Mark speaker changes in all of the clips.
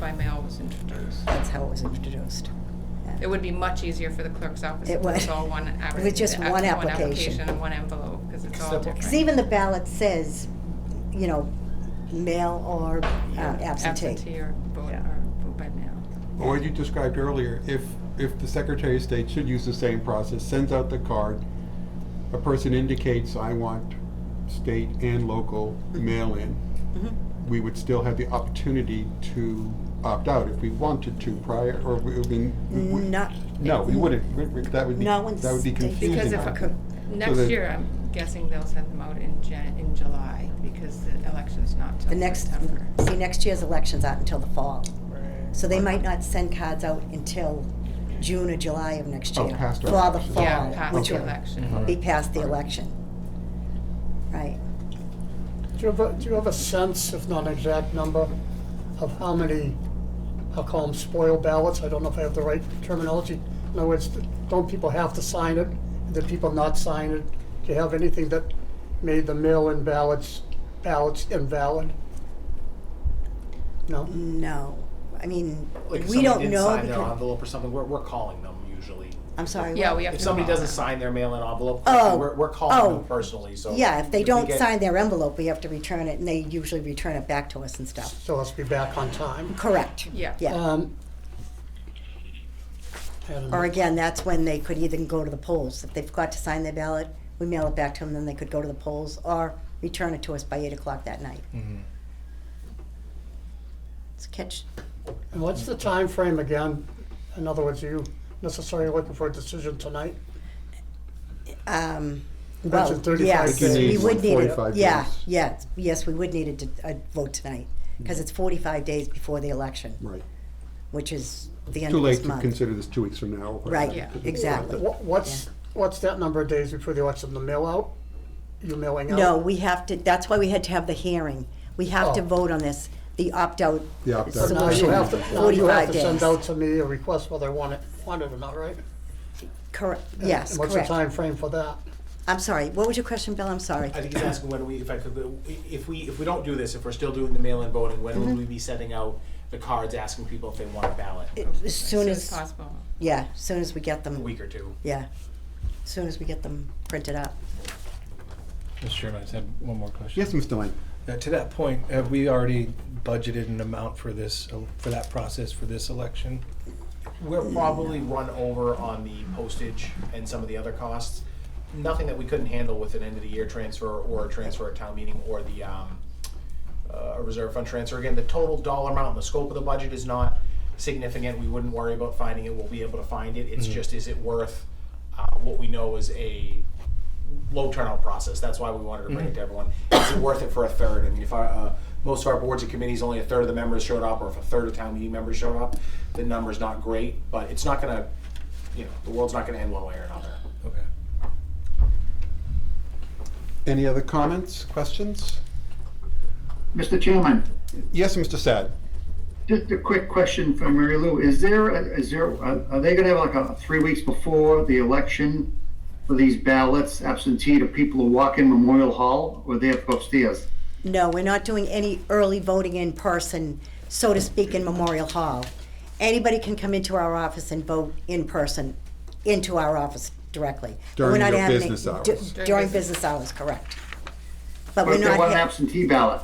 Speaker 1: by mail was introduced.
Speaker 2: That's how it was introduced.
Speaker 1: It would be much easier for the clerk's office
Speaker 2: It
Speaker 1: if
Speaker 2: would.
Speaker 1: it's all one
Speaker 2: With
Speaker 1: application.
Speaker 2: just one application.
Speaker 1: and one envelope, because it's all
Speaker 3: Simple.
Speaker 1: different.
Speaker 2: Because even the ballot says, you know, mail or uh,
Speaker 1: Yeah,
Speaker 2: absentee.
Speaker 1: or vote,
Speaker 2: Yeah.
Speaker 1: or vote by mail.
Speaker 3: But What you described earlier, if, if the Secretary of State should use the same process, sends out the card, a person indicates, I want state and local mail-in,
Speaker 2: Mhm.
Speaker 3: we would still have the opportunity to opt out if we wanted to prior, or we, I mean, we-
Speaker 2: Mm-hmm. Not,
Speaker 3: no, we wouldn't, We- we- that would be,
Speaker 2: No one's
Speaker 3: that would be
Speaker 2: taking-
Speaker 3: confusing.
Speaker 1: Because
Speaker 2: if-
Speaker 1: if,
Speaker 2: Okay.
Speaker 1: next
Speaker 3: the-
Speaker 1: year, I'm guessing they'll send them out in Jan, in July, because the election's not
Speaker 2: the
Speaker 1: till
Speaker 2: next,
Speaker 1: September.
Speaker 2: see, next year's election's not until the fall. So they might not send cards out until June or July of next
Speaker 3: Oh,
Speaker 2: year.
Speaker 3: past our
Speaker 2: For the
Speaker 3: election.
Speaker 1: Yeah,
Speaker 2: fall,
Speaker 1: past
Speaker 2: which
Speaker 1: the
Speaker 3: Okay.
Speaker 2: would
Speaker 1: election.
Speaker 3: Mhm.
Speaker 2: be past the election. Right.
Speaker 4: Do you have a, do you have a sense, if not an exact number, of how many, I'll call them spoiled ballots, I don't know if I have the right terminology. In other words, don't people have to sign it, did people not sign it? Do you have anything that made the mail-in ballots, ballots invalid? No?
Speaker 2: No, I mean,
Speaker 5: Like if
Speaker 2: we
Speaker 5: somebody
Speaker 2: don't
Speaker 5: didn't
Speaker 2: know
Speaker 5: sign their
Speaker 2: because,
Speaker 5: envelope or something, we're, we're calling them usually.
Speaker 2: I'm sorry.
Speaker 1: Yeah,
Speaker 2: what?
Speaker 1: we have to.
Speaker 5: If somebody
Speaker 1: call
Speaker 5: doesn't
Speaker 1: them.
Speaker 5: sign their mail-in envelope,
Speaker 2: Oh.
Speaker 5: we're, we're calling
Speaker 2: Oh.
Speaker 5: them personally. So
Speaker 2: Yeah, if they
Speaker 5: we
Speaker 2: don't
Speaker 5: get-
Speaker 2: sign their envelope, we have to return it and they usually return it back to us and stuff.
Speaker 4: So let's be back on time.
Speaker 2: Correct.
Speaker 1: Yeah.
Speaker 2: Yeah,
Speaker 4: Um, and-
Speaker 2: or again, that's when they could either go to the polls. If they forgot to sign their ballot, we mail it back to them, then they could go to the polls or return it to us by eight o'clock that night. It's a catch,
Speaker 4: And what's the time frame again? In other words, are you necessarily looking for a decision tonight?
Speaker 2: um,
Speaker 4: That's
Speaker 2: well,
Speaker 4: in 35
Speaker 2: yes,
Speaker 4: days.
Speaker 2: we would need it.
Speaker 3: 45
Speaker 2: Yeah,
Speaker 3: days.
Speaker 2: yes, yes, we would need a, d- a vote tonight, because it's forty-five days before the election.
Speaker 3: Right,
Speaker 2: which is the end
Speaker 3: too
Speaker 2: of
Speaker 3: late
Speaker 2: this
Speaker 3: to
Speaker 2: month.
Speaker 3: consider this two weeks from now. or-
Speaker 2: Right,
Speaker 1: Yeah.
Speaker 2: exactly.
Speaker 4: Wha- What's, what's that number of days before the election, the mail out? You mailing out?
Speaker 2: No, we have to, that's why we had to have the hearing. We have to
Speaker 4: Oh.
Speaker 2: vote on this, the opt-out
Speaker 3: The opt-out.
Speaker 4: So Now you
Speaker 2: solution,
Speaker 4: have to, now you have
Speaker 2: forty-five
Speaker 4: to
Speaker 2: days.
Speaker 4: send out to me a request whether I want it, want it or not, right?
Speaker 2: Correct, yes,
Speaker 4: And What's the
Speaker 2: correct.
Speaker 4: time frame for that?
Speaker 2: I'm sorry, what was your question, Bill? I'm sorry.
Speaker 5: I think he's asking when we, if I could, if we, if we don't do this, if we're still doing the mail-in voting, when
Speaker 2: Mm-hmm.
Speaker 5: would we be sending out the cards asking people if they want a ballot?
Speaker 2: It- As soon as,
Speaker 1: Possible.
Speaker 2: yeah, as soon as we get
Speaker 5: A
Speaker 2: them,
Speaker 5: week or two.
Speaker 2: yeah, as soon as we get them printed up.
Speaker 6: Mr. Chairman, I just had one more question.
Speaker 3: Yes, Ms. Delaney?
Speaker 6: Now, to that point, have we already budgeted an amount for this, uh, for that process for this election?
Speaker 5: We're probably run over on the postage and some of the other costs. Nothing that we couldn't handle with an end-of-the-year transfer or a transfer at town meeting or the, um, uh, reserve fund transfer. Again, the total dollar amount and the scope of the budget is not significant. We wouldn't worry about finding it. We'll be able to find it. It's just, is it worth, uh, what we know is a low turnout process. That's why we wanted to bring it to everyone. Is it worth it for a third? I mean, if our, uh, most of our boards and committees, only a third of the members showed up, or if a third of town meeting members showed up, the number's not great, but it's not gonna, you know, the world's not gonna end one way or another.
Speaker 6: Okay.
Speaker 3: Any other comments, questions?
Speaker 7: Mr. Chairman,
Speaker 3: Yes, Mr. Sad?
Speaker 7: just a quick question for Mary Lou. Is there, a- is there, are are they gonna have like a, three weeks before the election for these ballots absentee to people who walk in Memorial Hall or they have to go upstairs?
Speaker 2: No, we're not doing any early voting in person, so to speak, in Memorial Hall. Anybody can come into our office and vote in person, into our office directly. But we're
Speaker 3: During
Speaker 2: not
Speaker 3: your
Speaker 2: having-
Speaker 3: business
Speaker 2: du-
Speaker 3: hours.
Speaker 2: During business hours, correct. But
Speaker 7: But
Speaker 2: we're
Speaker 7: if they
Speaker 2: not,
Speaker 7: want an
Speaker 2: ha-
Speaker 7: absentee ballot?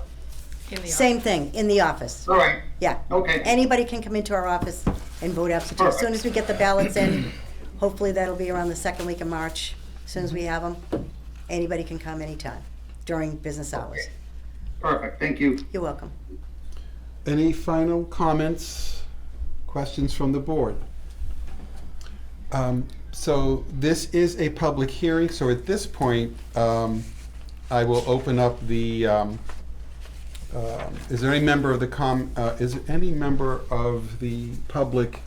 Speaker 1: In the
Speaker 2: same thing, in the office,
Speaker 7: All right,
Speaker 2: yeah.
Speaker 7: Okay.
Speaker 2: Anybody can come into our office and vote absentee. As soon as we get the ballots in, hopefully that'll be around the second week of March, as soon as we have them, anybody can come anytime during business hours.
Speaker 7: perfect, thank you.
Speaker 2: You're welcome.
Speaker 3: Any final comments, questions from the board? Um, So this is a public hearing, so at this point, um, I will open up the, um, uh, is there any member of the com, uh, is there any member of the public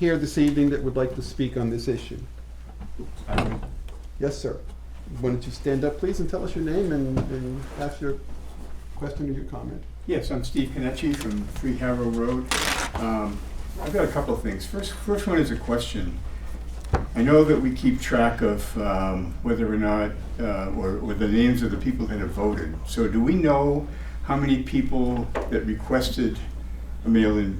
Speaker 3: here this evening that would like to speak on this issue? Yes, sir. Why don't you stand up, please, and tell us your name and- and ask your question or your comment?
Speaker 8: Yes, I'm Steve Kenichi from Free Harrow Road. Um, I've got a couple of things. First, first one is a question. I know that we keep track of um, whether or not, uh, or or the names of the people that have voted. So do we know how many people that requested a mail-in